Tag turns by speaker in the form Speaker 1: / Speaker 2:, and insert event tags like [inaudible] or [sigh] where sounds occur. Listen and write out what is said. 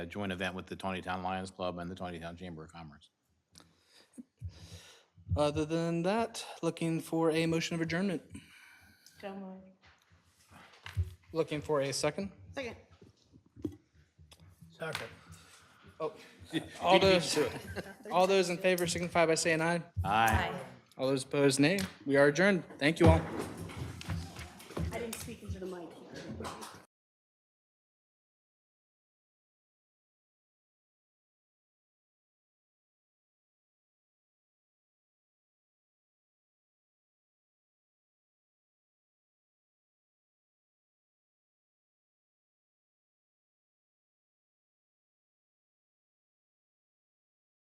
Speaker 1: a joint event with the Tawny Town Lions Club and the Tawny Town Chamber of Commerce.
Speaker 2: Other than that, looking for a motion of adjournment.
Speaker 3: So moved.
Speaker 2: Looking for a second.
Speaker 3: Second.
Speaker 2: Oh, [laughs] All those, all those in favor signify by saying aye.
Speaker 1: Aye.
Speaker 2: All those opposed, nay. We are adjourned. Thank you all.